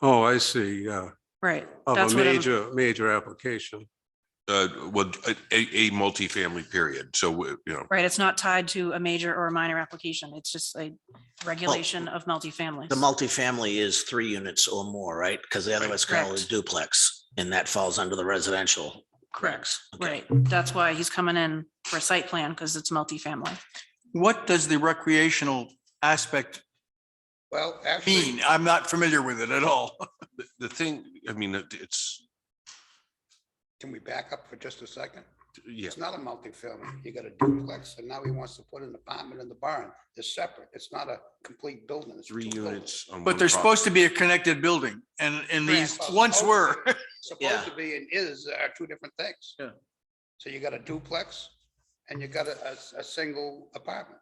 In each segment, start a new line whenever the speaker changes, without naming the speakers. Oh, I see, yeah,
right.
of
That's
a
what I'm-
major, major application.
Uh, well, a, a a multifamily period. So, uh, you know,
Right, it's not tied to a major or a minor application. It's just a regulation of multifamilies.
The multifamily is three units or more, right? Because the other
Right.
is called a
Correct.
duplex and that falls under the residential. Correct.
Right, that's why he's coming in for a site plan because it's multifamily.
What does the recreational aspect
Well,
mean?
actually,
I'm not familiar with it at all.
the, the thing, I mean, it- it's,
can we back up for just a second?
yeah,
It's not a multifamily. You got a duplex and now he wants to put an apartment in the barn. They're separate. It's not a complete building. It's
three
two buildings.
units. on one
But they're
property.
supposed to be a connected building and, and these
Correct.
once were.
Supposed to be and is are two different things.
Yeah.
So you got a duplex and you got a, a, a single apartment.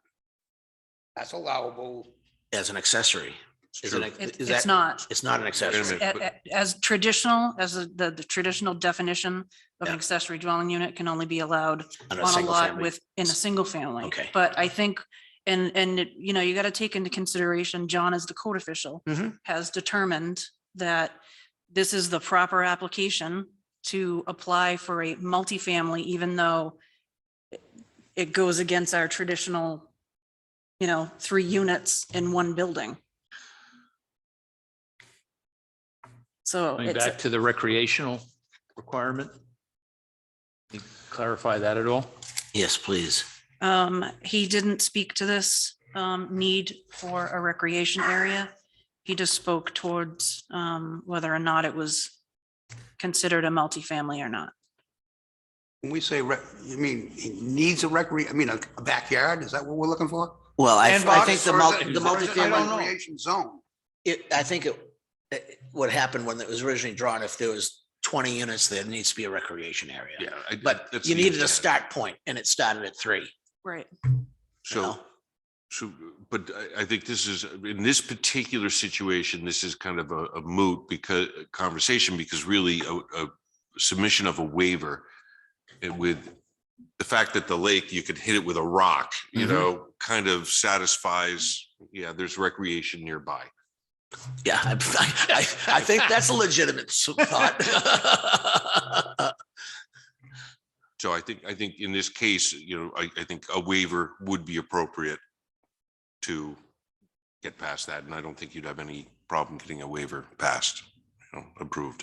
That's allowable.
As an accessory.
It's
Is it,
true.
a-
It-
is
It's
that,
not.
it's not an
Wait a
accessory.
minute,
A-
but-
a- As traditional, as the- the, the traditional definition of an
Yeah.
accessory dwelling unit can only be allowed
on
on a
single
lot
family.
with, in a single family.
Okay.
But I think, and, and, it- you know, you got to take into consideration, John as the code official
Mhm.
has determined that this is the proper application to apply for a multifamily, even though it goes against our traditional, you know, three units in one building. So
Going
it's,
back to the recreational requirement? Can you Clarify that at all?
Yes, please.
Um, he didn't speak to this, um, need for a recreation area. He just spoke towards, um, whether or not it was considered a multifamily or not.
When we say rec, you mean he needs a recre, I mean, a a backyard? Is that what we're looking for?
Well, I,
And
I
box
think the
Or is
multi,
it-
the
or is it a
I don't
multifamily,
know.
Recreation zone.
it, I think it, it- what happened when it was originally drawn, if there was twenty units, there needs to be a recreation area.
Yeah. I-
But
that's
you
the
needed a
intent.
start point and it started at three.
Right.
you
So,
know?
so, but I, I think this is, in this particular situation, this is kind of a a moot because, conversation, because really a, a submission of a waiver and with the fact that the lake, you could hit it with a rock, you
Mhm.
know, kind of satisfies, yeah, there's recreation nearby.
Yeah, I, I, I think that's a legitimate s- thought.
So I think, I think in this case, you know, I, I think a waiver would be appropriate to get past that, and I don't think you'd have any problem getting a waiver passed, you know, approved.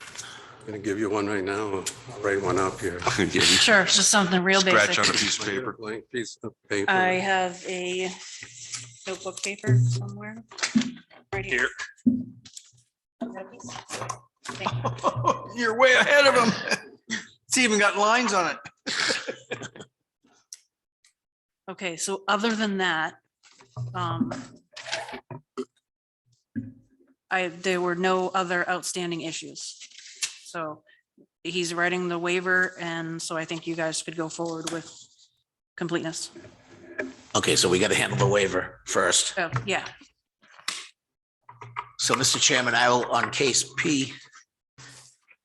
Gonna give you one right now, I'll write one up here.
Yeah, we
Sure, it's just something real
Scratch on a
basic.
piece of paper.
Blank piece of paper.
I have a notebook paper somewhere. Right here.
You're way ahead of them. It's even got lines on it.
Okay, so other than that, um, I, there were no other outstanding issues. So he's writing the waiver and so I think you guys could go forward with completeness.
Okay, so we got to handle the waiver first.
So, Oh, yeah,
So, Mr. Chairman, I will, on case P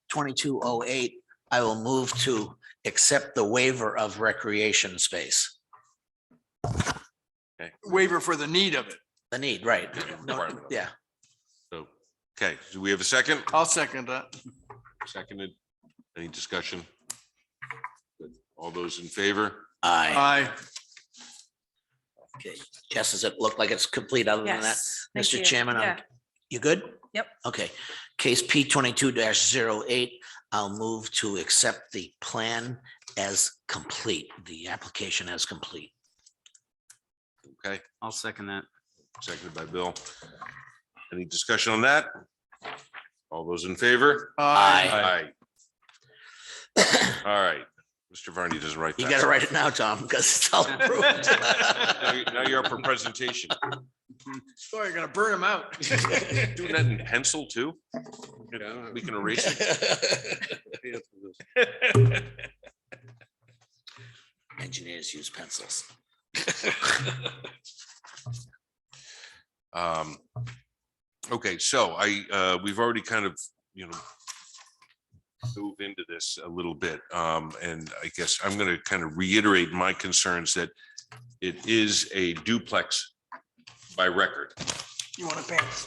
twenty-two oh eight, I will move to accept the waiver of recreation space.
Waiver for the need of it.
The need, right?
Requirement.
Yeah,
So, okay, do we have a second?
I'll second that.
Seconded. Any discussion? Good. All those in favor?
aye.
Aye.
Okay. Jess, does it look like it's complete other than that?
yes. thank
Mr.
you.
Chairman, I'm-
Yeah,
You good?
Yep.
Okay, case P twenty-two 8 zero eight, I'll move to accept the plan as complete, the application as complete.
Okay,
I'll second that.
seconded by Bill. Any discussion on that? All those in favor?
Aye.
Aye. All right, Mr. Varney doesn't write.
You
that.
gotta write it now, Tom, because it's all approved.
Now you- Now you're up for presentation.
Sorry, you're gonna burn them out.
Doing that in pencil too? We can erase it.
Engineers use pencils.
Um, okay, so I, uh, we've already kind of, you know, move into this a little bit, um, and I guess I'm gonna kind of reiterate my concerns that it is a duplex by record.
You want to pass?